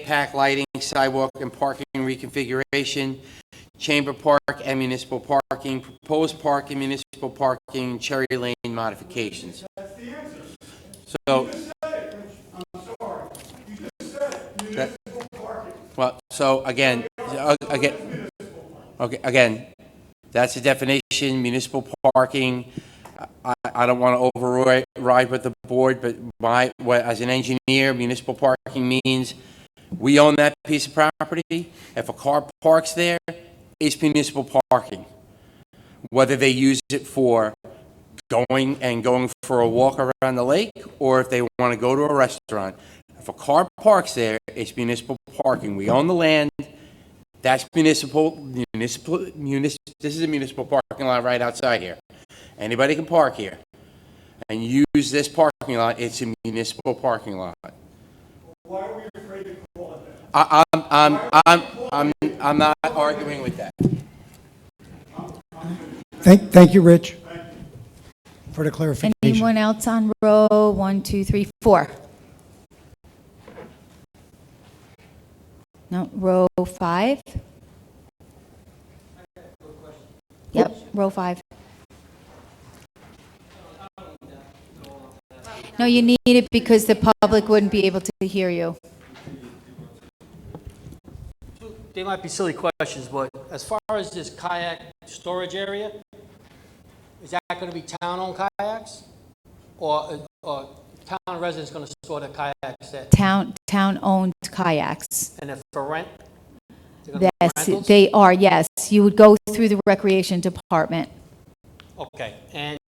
impact lighting, sidewalk and parking reconfiguration, chamber park and municipal parking, proposed park and municipal parking, Cherry Lane modifications. That's the answer. So. You just said it, I'm sorry. You just said municipal parking. Well, so again, uh, again, okay, again, that's the definition, municipal parking. I, I don't want to override with the board, but my, what- as an engineer, municipal parking means we own that piece of property. If a car parks there, it's municipal parking. Whether they use it for going and going for a walk around the lake, or if they want to go to a restaurant. If a car parks there, it's municipal parking. We own the land. That's municipal, municipal, munis, this is a municipal parking lot right outside here. Anybody can park here and use this parking lot. It's a municipal parking lot. Why are we afraid to call it that? I, I'm, I'm, I'm, I'm not arguing with that. Thank, thank you, Rich, for the clarification. Anyone else on row one, two, three, four? No, row five? Yep, row five. No, you need it because the public wouldn't be able to hear you. They might be silly questions, but as far as this kayak storage area, is that going to be town-owned kayaks? Or, or town residents going to store their kayaks there? Town, town-owned kayaks. And if for rent? they're gonna be Yes, rentals? they are, yes. You would go through the recreation department. Okay, and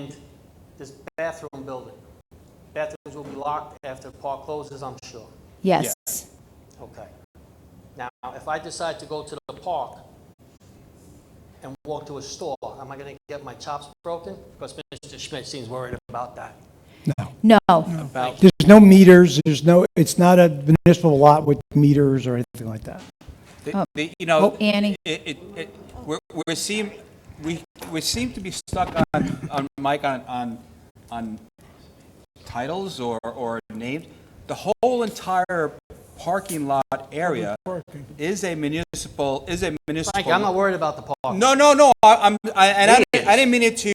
this bathroom building, bathrooms will be locked after the park closes, I'm sure. Yes. Okay. Now, if I decide to go to the park and walk to a store, am I going to get my chops broken? Because Mr. Schmidt seems worried about that. No, There's no meters, there's no, it's not a municipal lot with meters or anything like that. Oh. The- the- You know, Oh, Annie. it, it, it, we're, we're seem, we, we seem to be stuck on, on, Mike, on, on, on titles or, or names. The whole entire parking lot area is a municipal, is a municipal. Frank, I'm not worried about the park. No, no, no, I- I'm, I, and I, didn't- I didn't mean it to,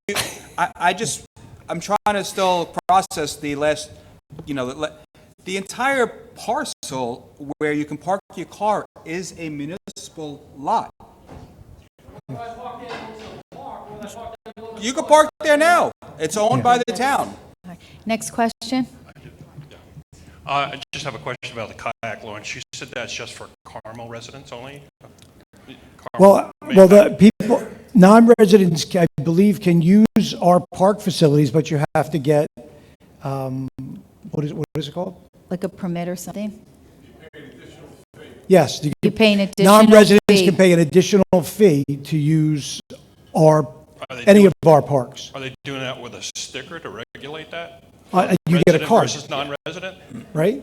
I, I just, I'm trying to still process the last, you know, the le- the entire parcel where you can park your car is a municipal lot. You can park there now, it's owned by the town. Next question? Uh, I just have a question about the kayak launch. You said that's just for Carmel residents only? Well, well, the people, non-residents, I believe, can use our park facilities, but you have to get, um, what is, what is it called? like a permit or something? Yes, you- You pay an additional fee. non-residents can pay an additional fee to use our, Are they any doing- of our parks. Are they doing that with a sticker to regulate that? Uh, You get a Resident card, Versus non-resident? right?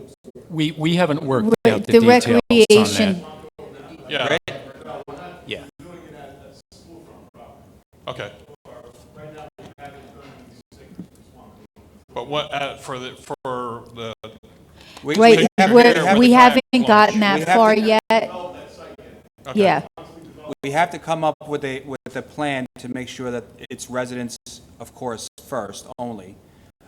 We, we haven't worked Re- out the details on The recreation, that. Yeah, Yeah. okay. But what, uh, for the, for the, We- right, we have- we're- we have we to- haven't gotten We that have to- far yet. Yeah, We have to come up with a, with a plan to make sure that it's residents, of course, first only,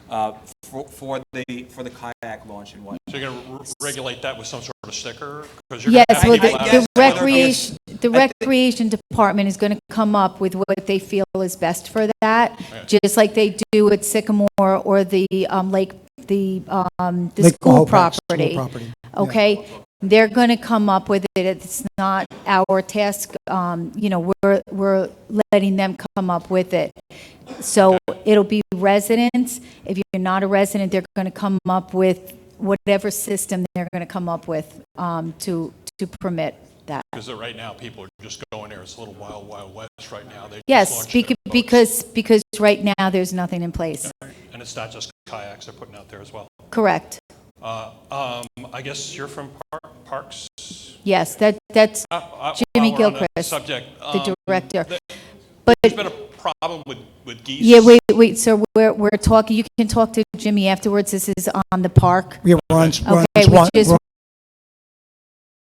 uh, for, for the, for the kayak launch and whatnot. so you're going to regulate that with some sort of sticker? 'Cause you're gonna yes, have well, people I out- the- the guess whether it's- recreation, the I think- recreation department is going to come up with what they feel is best for that, just like they do at Sycamore or the um, lake, the, um, the Lake school Quahoe Park, school property. property, yeah. Okay? They're going to come up with it. It's not our task, um, you know, we're, we're letting them come up with it. So it'll be residents. If you're not a resident, they're going to come up with whatever system they're going to come up with um, to, to permit that. Because right now, people are just going there. It's a little wild, wild west right now. They just Yes, launched beca- their boats. because, because right now, there's nothing in place. And it's not just kayaks they're putting out there as well. Correct. Uh, um, I guess you're from Par- Parks? Yes, that, that's Uh, uh, Jimmy while we're on the Gilchrist, Subject. the um, director. th- But There's been a problem with, with geese. Yeah, wait, wait, sir, we're, we're talking, you can talk to Jimmy afterwards, this is on the park. We are on, we're on Okay, we Swan, just we're